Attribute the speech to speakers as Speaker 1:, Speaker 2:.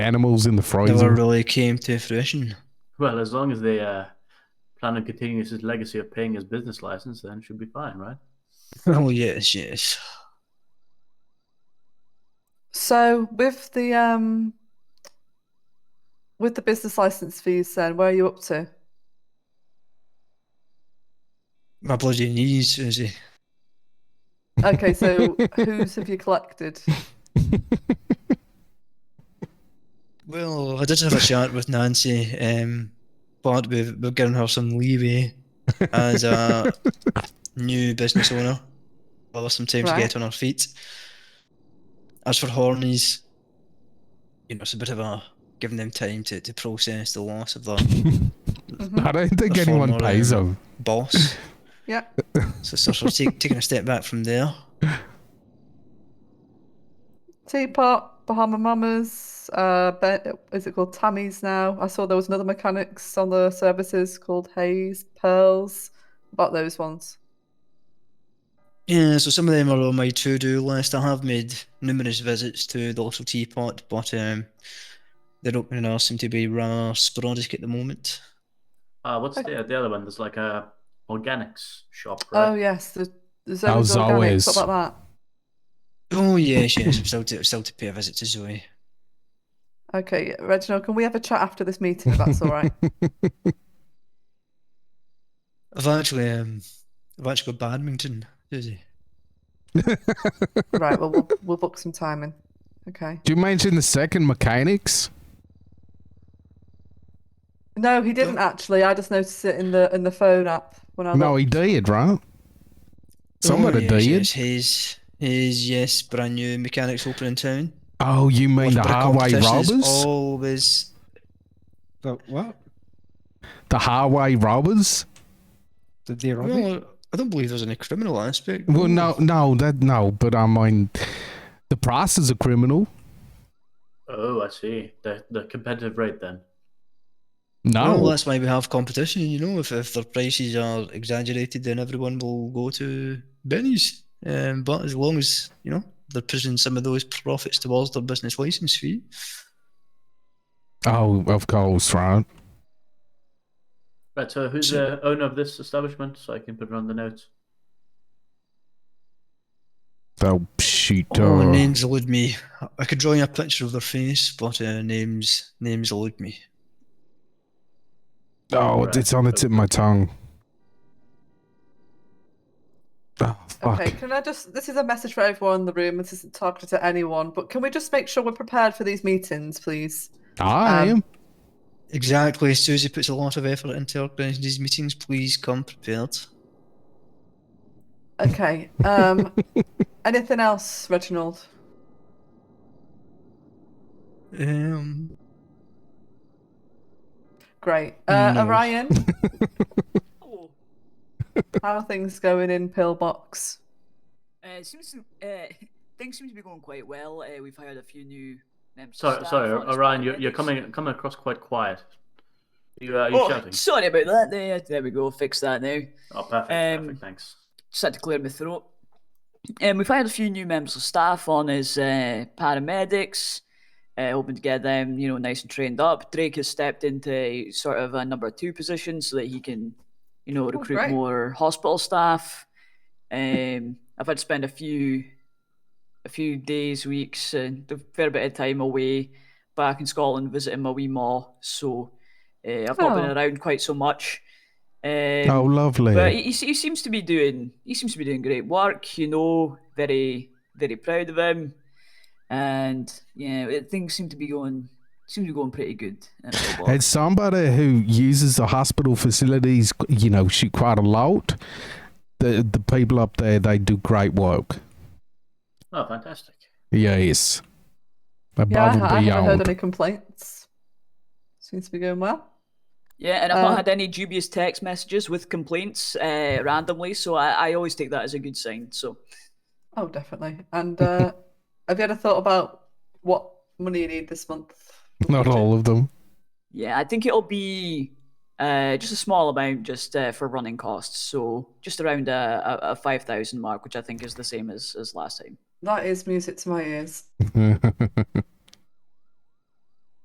Speaker 1: animals in the
Speaker 2: never
Speaker 1: freezer.
Speaker 2: really came to fruition.
Speaker 3: Well, as long as they uh, plan on continuing his legacy of paying his business license, then should be fine, right?
Speaker 2: Oh yes, yes.
Speaker 4: So with the um with the business license fees then, where are you up to?
Speaker 2: My bloody knees, Susie.
Speaker 4: Okay, so whose have you collected?
Speaker 2: Well, I did have a chat with Nancy, um, but we've, we've given her some leeway as a new business owner. Well, some time to
Speaker 4: Right.
Speaker 2: get on her feet. As for Hornies, you know, it's a bit of a giving them time to, to process the loss of their
Speaker 4: Mhm.
Speaker 1: I don't think
Speaker 2: The
Speaker 1: anyone
Speaker 2: formula.
Speaker 1: pays them.
Speaker 2: boss.
Speaker 4: Yeah.
Speaker 2: So, it's sort of take, taking a step back from there.
Speaker 4: Teapot, Bahama Mamas, uh, ben, is it called Tammy's now? I saw there was another mechanics on the services called Hayes, Pearls. About those ones.
Speaker 2: Yeah, so some of them are on my to-do list. I have made numerous visits to the Little Teapot, but um, their opening hours seem to be rather sporadic at the moment.
Speaker 3: Uh, what's
Speaker 4: Okay.
Speaker 3: the the other one? There's like a organics shop,
Speaker 4: Oh
Speaker 3: right?
Speaker 4: yes, the, the
Speaker 1: How's
Speaker 4: zones organic,
Speaker 1: always?
Speaker 4: stuff like that.
Speaker 2: Oh yes, yes, I'm still to, still to pay a visit to Zoe.
Speaker 4: Okay, Reginald, can we have a chat after this meeting if that's all right?
Speaker 2: I've actually um, I've actually got badminton, Susie.
Speaker 4: right, well, we'll we'll book some time in. Okay.
Speaker 1: Did you mention the second mechanics?
Speaker 4: No, he didn't actually. I just noticed it in the in the phone app when I
Speaker 1: No,
Speaker 4: looked.
Speaker 1: he did, right? Somebody
Speaker 2: oh, yes,
Speaker 1: did.
Speaker 2: yes, his his yes, brand new mechanics open in town.
Speaker 1: Oh, you mean
Speaker 2: Watch
Speaker 1: the
Speaker 2: a bit of
Speaker 1: highway
Speaker 2: competition is
Speaker 1: robbers?
Speaker 2: Always.
Speaker 5: The what?
Speaker 1: The highway robbers?
Speaker 5: Did they rob you?
Speaker 2: Well, I don't believe there's any criminal aspect.
Speaker 1: Well, no, no, that no. But I mean, the price is a criminal.
Speaker 3: Oh, I see. The the competitive rate then.
Speaker 1: No,
Speaker 2: Well, that's why we have competition, you know. If, if their prices are exaggerated, then everyone will go to Benny's. Um, but as long as, you know, they're pushing some of those profits towards their business license fee.
Speaker 1: oh, of course, right.
Speaker 3: Right. So who's
Speaker 2: So-
Speaker 3: the owner of this establishment? So I can put it on the notes.
Speaker 1: So shoot,
Speaker 2: Oh,
Speaker 1: uh,
Speaker 2: names elude me. I could draw you a picture of their face, but uh, names names elude me.
Speaker 1: oh, it's on the tip of my tongue. Oh fuck!
Speaker 4: Okay, can I just? This is a message for everyone in the room. This isn't targeted at anyone, but can we just make sure we're prepared for these meetings, please?
Speaker 1: I
Speaker 4: Um,
Speaker 1: am.
Speaker 2: Exactly. Susie puts a lot of effort into organising these meetings. Please come prepared.
Speaker 4: Okay. Um, anything else, Reginald?
Speaker 2: Um,
Speaker 4: Great. Uh,
Speaker 2: No.
Speaker 4: Orion, how are things going in Pillbox?
Speaker 6: Uh, seems to, uh, things seem to be going quite well. Uh, we've hired a few new members. of
Speaker 3: Sorry,
Speaker 6: staff.
Speaker 3: sorry,
Speaker 6: Not
Speaker 3: Orion. You're,
Speaker 6: expected.
Speaker 3: you're coming coming across quite quiet. You uh, you
Speaker 6: Oh,
Speaker 3: shouting?
Speaker 6: sorry about that. There, there we go. Fix that now.
Speaker 3: Oh, perfect.
Speaker 6: Um,
Speaker 3: perfect. Thanks.
Speaker 6: Just had to clear my throat. Um, we've hired a few new members of staff on as uh, paramedics, uh, hoping to get them, you know, nice and trained up. Drake has stepped into sort of a number two position so that he can, you know, recruit
Speaker 4: Oh, great.
Speaker 6: more hospital staff. Um, I've had to spend a few, a few days, weeks, and a fair bit of time away back in Scotland visiting my wee ma. So uh, I've not been
Speaker 4: Oh.
Speaker 6: around quite so much. Um,
Speaker 1: oh, lovely.
Speaker 6: but he, he se- he seems to be doing he seems to be doing great work. You know, very very proud of him, and yeah, it- things seem to be going seem to be going pretty good. at Millwall.
Speaker 1: As somebody who uses the hospital facilities, you know, shoot quite a lot, the the people up there they do great work.
Speaker 3: Oh, fantastic.
Speaker 1: Yes,
Speaker 4: Yeah,
Speaker 1: above
Speaker 4: I, I
Speaker 1: and
Speaker 4: haven't heard
Speaker 1: beyond.
Speaker 4: any complaints. Seems to be going well.
Speaker 6: yeah, and I've not
Speaker 4: uh,
Speaker 6: had any dubious text messages with complaints uh, randomly, so I, I always take that as a good sign. So
Speaker 4: Oh, definitely. And uh, have you had a thought about what money you need this month?
Speaker 1: Not all of them.
Speaker 6: yeah, I think it'll be. Uh, just a small amount, just uh, for running costs. So just around a, a, a five thousand mark, which I think is the same as, as last time.
Speaker 4: That is music to my ears.